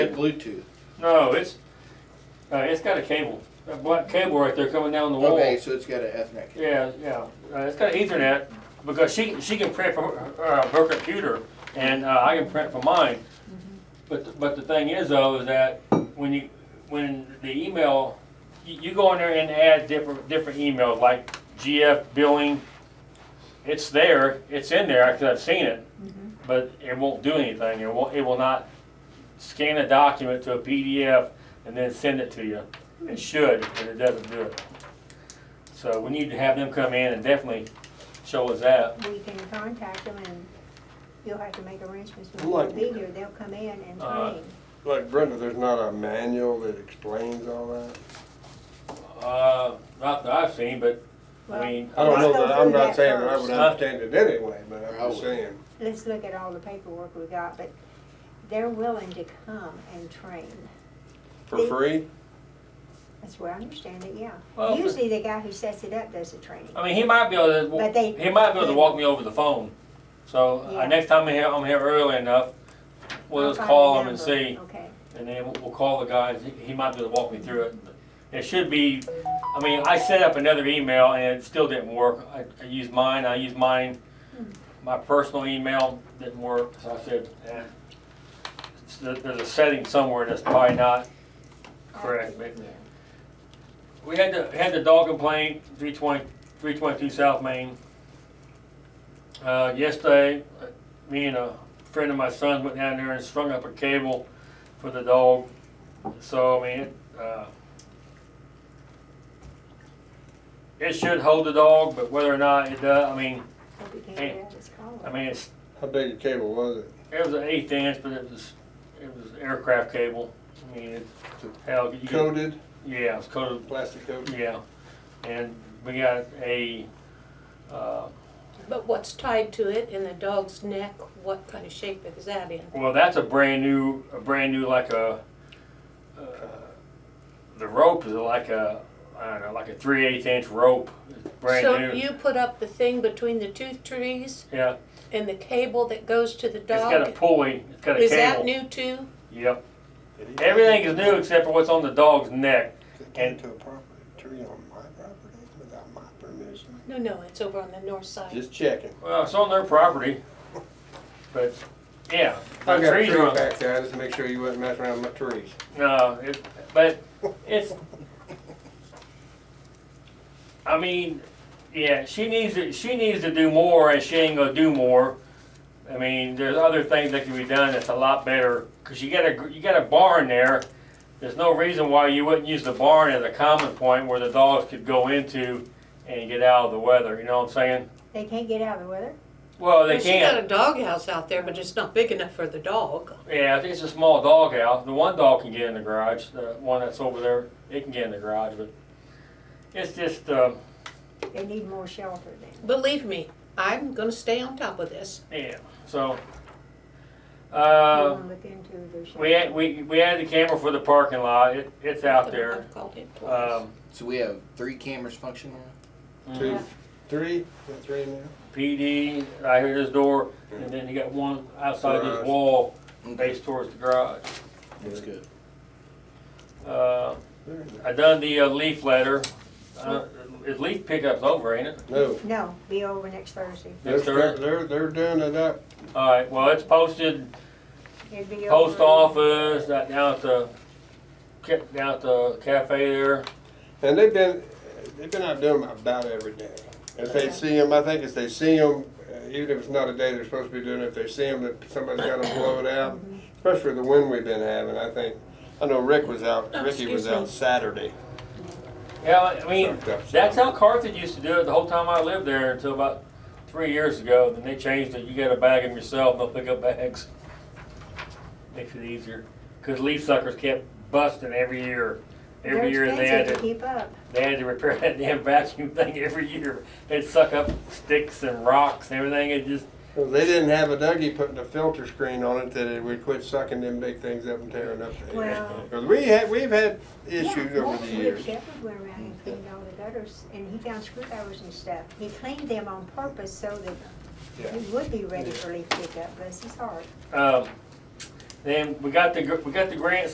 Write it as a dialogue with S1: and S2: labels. S1: Bluetooth.
S2: No, it's, uh, it's got a cable, a black cable right there coming down the wall.
S1: Okay, so it's got an Ethernet. cable.
S2: Yeah, yeah, uh, it's got Ethernet, because she, she can print from her, uh, her computer, and, uh, I can print from mine. But, th- but the thing is though, is that when you, when the email, you, you go in there and add different, different emails, like GF billing, it's there, it's in there, because I've seen it, but it won't do anything, it won't, it will not scan a document to a PDF and then send it to you. It should, but it doesn't do it. So we need to have them come in and definitely show us that.
S3: We can contact them and you'll have to make arrangements when
S4: Like-
S3: they'll be here, they'll come in and
S2: Uh,
S3: train.
S4: Like Brenda, there's not a manual that explains all that.
S2: Uh, not that I've seen, but
S3: Well,
S2: I mean,
S4: I don't know
S3: Let's go
S4: that, I'm
S3: through
S4: not
S3: that
S4: saying that I would
S2: first.
S4: understand it anyway, but I'm
S1: I
S4: just
S1: would.
S4: saying.
S3: Let's look at all the paperwork we got, but they're willing to come and train.
S4: For free?
S3: That's where I understand it, yeah.
S2: Well, but-
S3: Usually the guy who sets it up does the training.
S2: I mean, he might be able
S3: But
S2: to,
S3: they-
S2: he might be able to walk me over the phone. So uh,
S3: Yeah.
S2: next time I'm here, I'm here early enough, we'll
S3: I'll
S2: just
S3: find
S2: call
S3: the
S2: him and
S3: number.
S2: see,
S3: Okay,
S2: and then we'll- we'll call the guys, He- he might be able to walk me through it. It should be, I mean, I set up another email and it still didn't work. I, I used mine, I used mine, my personal email didn't work, so I said, eh. It's- there- There's a setting somewhere that's probably not correct, but we had the, had the dog complaint, 320 322 South Main. Uh, yesterday, uh, me and a friend of my son went down there and strung up a cable for the dog. So, I mean, it, uh, it should hold the dog, but whether or not it does, I mean,
S3: hope you can
S2: Hey,
S3: hear this call.
S2: I mean, it's,
S4: How big a cable was it?
S2: it was an eighth inch, but it was, it was aircraft cable. I mean, it, hell, you could,
S4: Coated,
S2: yeah, it's coated,
S4: plastic coated?
S2: yeah. And we got a, uh,
S5: But what's tied to it in the dog's neck, what kind of shape is that in?
S2: Well, that's a brand new, a brand new like a, uh, the rope is like a, I don't know, like a three eighth inch rope, It's brand
S5: so
S2: new.
S5: you put up the thing between the two trees
S2: yeah,
S5: and the cable that goes to the
S2: it's got a
S5: dog?
S2: pulley. It's got a
S5: Is
S2: cable.
S5: that new too?
S2: Yep. Everything is new except for what's on the dog's neck.
S4: Came to a property, tree on my property without my permission?
S5: No, no, it's over on the north side.
S4: Just checking.
S2: Well, it's on their property, but yeah, the
S4: I got a
S2: trees
S4: tree
S2: are on-
S4: back there, I just make sure you wasn't messing around with my trees.
S2: No, it, but it's. I mean, yeah, she needs to. She needs to do more, and she ain't gonna do more. I mean, there's other things that can be done that's a lot better. Cause you got a gr- you got a barn there. There's no reason why you wouldn't use the barn as a common point where the dogs could go into and get out of the weather. You know what I'm saying?
S3: They can't get out of the weather?
S2: Well, they
S5: Well, She
S2: can't.
S5: got a doghouse out there, but it's not big enough for the dog.
S2: Yeah, I think it's a small dog house. The one dog can get in the garage. The one that's over there, it can get in the garage, but it's just, um,
S3: They need more shelter then.
S5: Believe me, I'm gonna stay on top of this.
S2: yeah, so.
S3: You
S2: Uh,
S3: wanna look into their shelter.
S2: we had, we, we had the camera for the parking lot. It, it's out there.
S5: I've called it twice.
S2: Um,
S1: So we have three cameras functioning.
S4: Two,
S3: Yeah.
S4: three, Is that three now?
S2: PD, right here at his door, and then you got one outside his
S4: Garage.
S2: wall,
S1: Okay,
S2: faced towards the garage.
S1: that's good.
S2: Uh,
S4: Very nice.
S2: I done the uh, leaf letter. Uh, is leaf pickup's over, ain't it?
S4: No,
S3: No, be over next Thursday.
S4: they're,
S2: Next Thursday?
S4: they're, they're doing it up.
S2: Alright, well, it's posted
S3: It'd be over.
S2: post office, that down at the, ca- down at the cafe there.
S4: And they've been, they've been out doing 'em about every day. If they see them, I think if they see them, even if it's not a day they're supposed to be doing it, if they see them, that somebody's got them blowing out, especially the wind we've been having, I think. I know Rick was out,
S5: Oh,
S4: Ricky was
S5: excuse me.
S4: out Saturday.
S2: Yeah, I mean,
S4: Sucked up some.
S2: that's how Carthage used to do it the whole time I lived there until about three years ago. Then they changed it, you gotta bag them yourself, they'll pick up bags. Makes it easier, cause leaf suckers kept busting every year.
S3: They're
S2: Every year they had
S3: expensive to
S2: to,
S3: keep up.
S2: they had to repair that damn vacuum thing every year. They'd suck up sticks and rocks and everything, it just,
S4: Well, They didn't have a Dougie putting a filter screen on it that it would quit sucking them big things up and tearing up the air.
S3: Well-
S4: Because we had, we've had issues
S3: Yeah,
S4: over
S3: last
S4: the
S3: week
S4: years. Mm.
S3: Shepherd went around and cleaned all the gutters, and he found screwdrivers and stuff. He cleaned them on purpose so that
S4: Yeah.
S3: he would be ready for leaf pickup, bless his heart.
S2: Um, Then we got the, gr- we got the grants